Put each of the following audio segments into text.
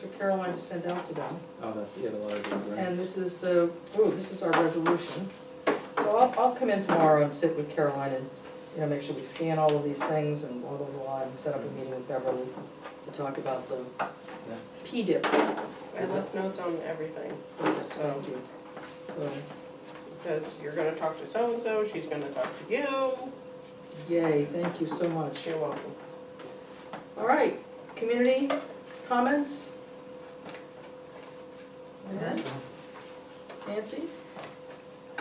for Caroline to send out to them. Oh, that's, you had a lot of them, right? And this is the, ooh, this is our resolution. So I'll, I'll come in tomorrow and sit with Caroline and, you know, make sure we scan all of these things and blah, blah, blah, and set up a meeting with Beverly to talk about the P-dip. I left notes on everything. So, so, It says, you're gonna talk to so-and-so, she's gonna talk to you. yay, thank you so much. You're welcome. All right, community comments? Nancy?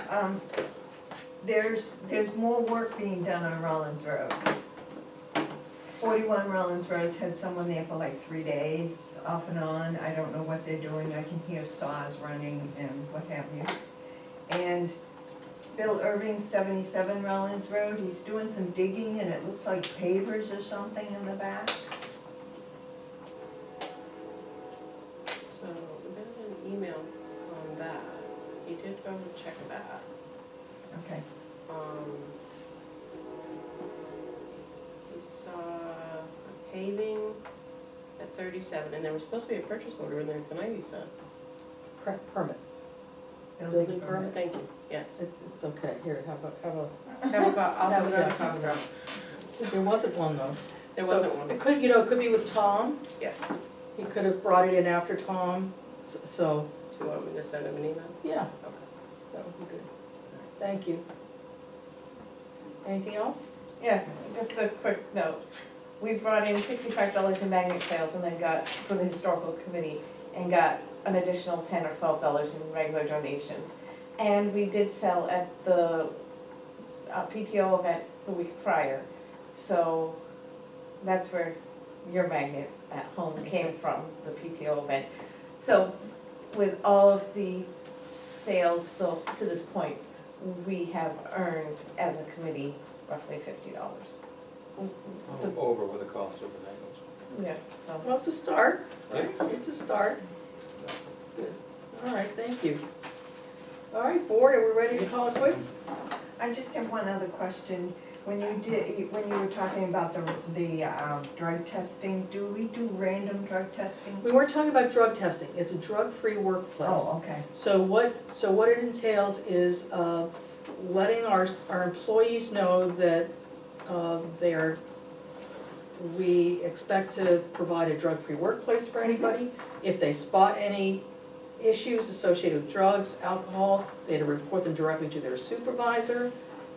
Um, There's, there's more work being done on Rollins Road. Forty-one Rollins Road's had someone there for like three days, off and on, I don't know what they're doing, I can hear saws running and what have you. And Bill Irving, seventy-seven Rollins Road, he's doing some digging and it looks like pavers or something in the back. So we got an email on that. He did go and check that. Okay, Um, He saw a paving at thirty-seven, and there was supposed to be a purchase order in there tonight, he said. Per- Permit, building permit. Oh, Thank you, yes. It- it's okay, here, have a, have a, Have a co- I'll have Yeah, another yeah. coffee drop. there wasn't one though. There So, wasn't one, It could, you know, it could be with Tom, yes. Do he could have brought it in after Tom, s- so, you want me to send him an email? yeah, Okay. that would be good. Thank you. Anything else? Yeah, just a quick note. We brought in sixty-five dollars in magnet sales and then got, for the historical committee, and got an additional ten or twelve dollars in regular donations. And we did sell at the uh, PTO event the week prior, so that's where your magnet at home came from, the PTO event. So with all of the sales, so to this point, we have earned as a committee roughly fifty dollars. Oh, Over with the cost of the Yeah, so. Well, it's a start, language. it's a start, all right, thank you. All right, board, are we ready to call it quits? I just have one other question. When you did, when you were talking about the, the um, drug testing, do we do random drug testing? We weren't talking about drug testing, it's a drug-free workplace. Oh, okay. So what, so what it entails is uh, letting our, our employees know that uh, they are, we expect to provide a drug-free workplace for anybody. If they spot any issues associated with drugs, alcohol, they to report them directly to their supervisor.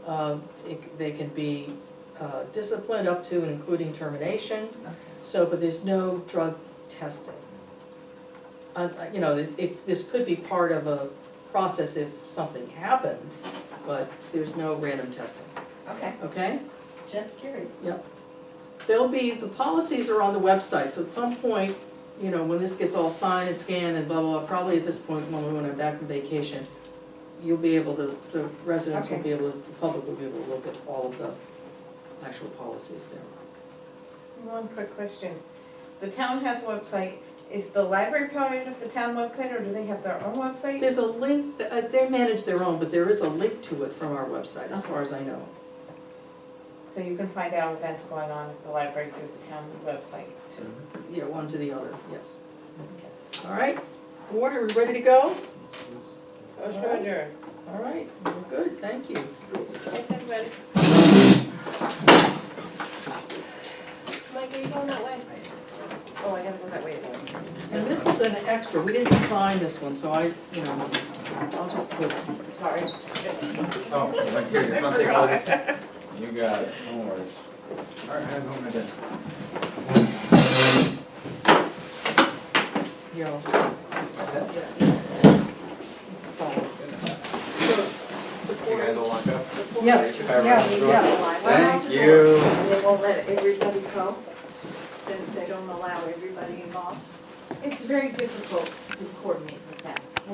Um, it- They can be uh, disciplined up to and including termination. Okay. So, but there's no drug testing. Uh, you know, this- it, this could be part of a process if something happened, but there's no random testing, Okay, okay? just curious. There'll be, the policies are on the website, so at some point, you know, when this gets all signed and scanned and blah, blah, blah, probably at this point, when we went back from vacation, you'll be able to, the residents will Okay. be able, to the public will be able to look at all of the actual policies there. One quick question. The town has a website. Is the library part of the town website or do they have their own website? There's a link, th- uh, they manage their own, but there is a link to it from our website, as far as I know. So you can find out events going on at the library through the town website too. Yeah, one to the other, yes. All right, board, are we ready to go? Motion to adjourn. All right, we're good, thank you. Thanks, everybody. Mike, are you going that way? Oh, I gotta go that way. And this is an extra, we didn't sign this one, so I, you know, I'll just put, Sorry. Oh, like, here, you're gonna take all this. You got it, no worries. All right, I'm home then. you know, That's it? follow. You guys all lock up? Yes, If I remember yes, correctly. yeah. Thank you. And they won't let everybody go? Then they don't allow everybody involved? It's very difficult to coordinate